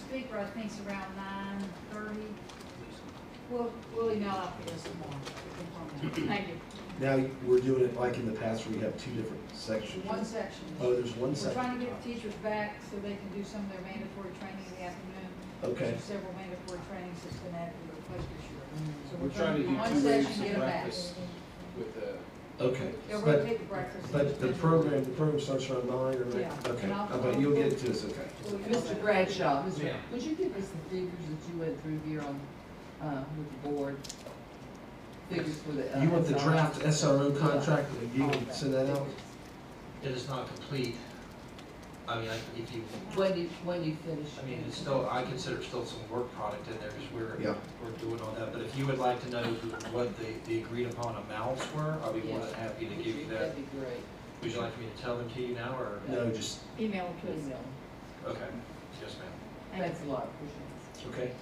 speaker, I think it's around nine thirty. We'll, we'll email out for this tomorrow. to confirm that. Thank you. Now, we're doing it like in the past where you have two different sections. One section. Oh, there's one We're section. trying to get the teachers back so they can do some of their mandatory training in the afternoon. Okay. There's Several mandatory trainings that's been added to the request this year. So Mm. We're trying to do one two section, waves of get 'em back. breakfast with the. Okay. They'll But, rotate the breakfast. but the program, the program starts around nine or, Yeah. okay, And I'll- but you'll get it to us, okay. We'll email Mr. that. Bradshaw, Mr. Ma'am. would you give us the figures that you went through here on, uh, with the board? Figures for the. uh, You want the draft SRO contract, you All can that. send that out? It is not complete. I mean, I- if you, When do, you- when do you finish? I mean, it's still, I consider still some work product in there because we're, Yeah. we're doing all that. But if you would like to know what the, the agreed upon amounts were, I'll be more than happy to give you that. That'd be great. Would you like me to tell them to you now or? No, just, Email it to us. Email. Okay, yes, ma'am. Thanks a lot, appreciate okay.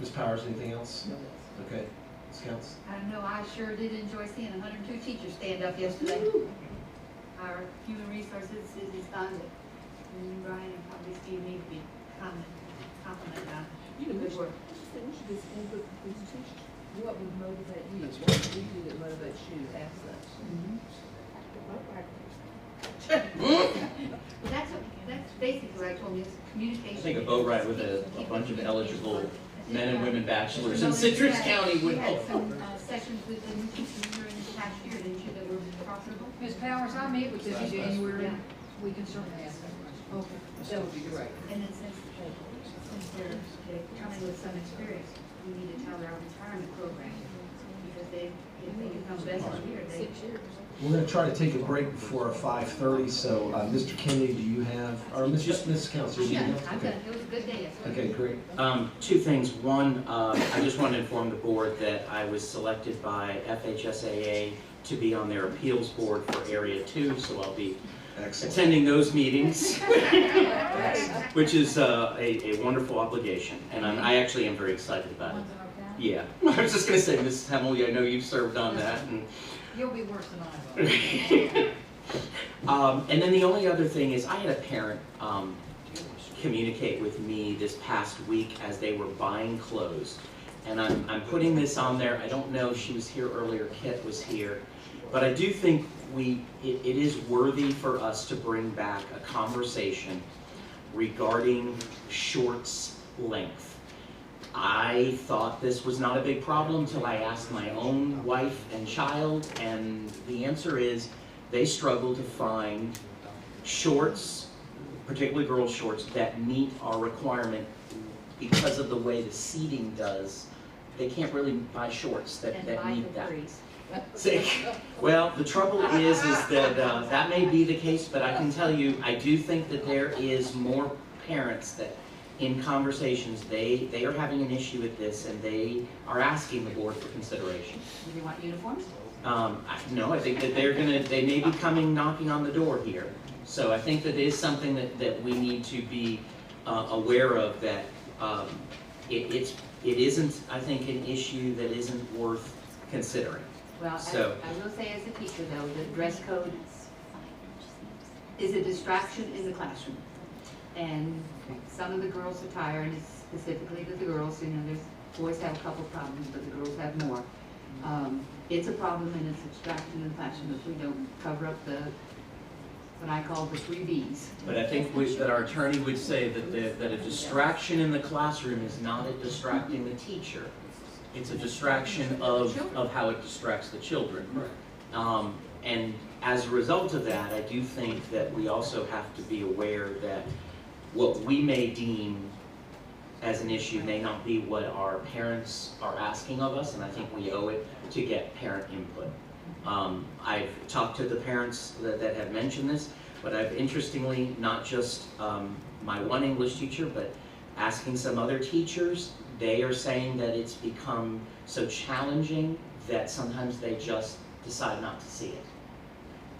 Ms. Powers, anything else? it. Okay, Ms. Counts? I don't know, I sure did enjoy seeing hundred and two teachers stand up yesterday. Our human resources is responding. And Brian and probably Steve need to be comment, complimented on You know, good Mr. work. We should just input from these teachers. What would motivate you? What would you do that motivates you to ask that? Well, that's, what- that's basically what I told him, is communication. I think a boat ride with a- a bunch of eligible men and women bachelors in Citrus County We would had help. some uh, sessions with the new teachers during the past year, didn't you, that were profitable? Ms. Powers, I'll meet with you in Last question. January. Yeah. We can certainly ask that question. Okay. That would be great. And then since, since they're, they're coming with some experience, we need to tell our retirement program, because they, if they become best here, they. We're gonna try to take a break before our five thirty, so, uh, Mr. Kennedy, do you have, or Ms. just Ms. Counts, do you Yeah, have? I've Okay. done, it was a good day yesterday. Okay, great. Um, two things. One, uh, I just want to inform the board that I was selected by FHSAA to be on their appeals board for Area Two, so I'll be Excellent. attending those meetings, which is, uh, a, a wonderful obligation, and I'm, I actually am very excited about it. Ones in our county? Yeah, I was just gonna say, Mrs. Hemley, I know you've served on that, and You'll be worse than I will. Um, and then the only other thing is, I had a parent um, communicate with me this past week as they were buying clothes. And I'm, I'm putting this on there, I don't know, she was here earlier, Kit was here. But I do think we, it, it is worthy for us to bring back a conversation regarding shorts length. I thought this was not a big problem till I asked my own wife and child, and the answer is they struggle to find shorts, particularly girls' shorts, that meet our requirement because of the way the seating does. They can't really buy shorts that, And that buy meet that. Capri's. Say- Well, the trouble is, is that, uh, that may be the case, but I can tell you, I do think that there is more parents that, in conversations, they, they are having an issue with this, and they are asking the board for consideration. Do you want uniforms? Um, I, no, I think that they're gonna, they may be coming knocking on the door here. So I think that is something that, that we need to be, uh, aware of, that, um, it, it's, it isn't, I think, an issue that isn't worth considering. Well, So- I, I will say as a teacher though, the dress code is a distraction in the classroom. And some of the girls attire, and it's specifically to the girls, you know, there's, boys have a couple problems, but the girls have more. Um, it's a problem and it's a distraction in the classroom if we don't cover up the, what I call the three Bs. But I think we- that our attorney would say that, the- that a distraction in the classroom is not a distracting the teacher. It's a distraction of, of how it distracts the children. Um, and as a result of that, I do think that we also have to be aware that what we may deem as an issue may not be what our parents are asking of us, and I think we owe it to get parent input. Um, I've talked to the parents that, that have mentioned this, but I've interestingly, not just, um, my one English teacher, but asking some other teachers, they are saying that it's become so challenging that sometimes they just decide not to see it.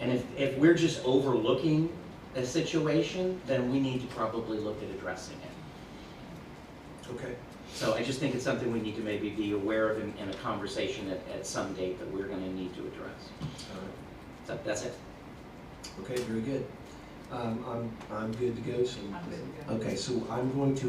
And if, if we're just overlooking a situation, then we need to probably look at addressing it. Okay. So I just think it's something we need to maybe be aware of in, in a conversation at, at some date that we're gonna need to address. All right. So that's it. Okay, very good. Um, I'm, I'm good to go, so. I'm good to go. Okay, so I'm going to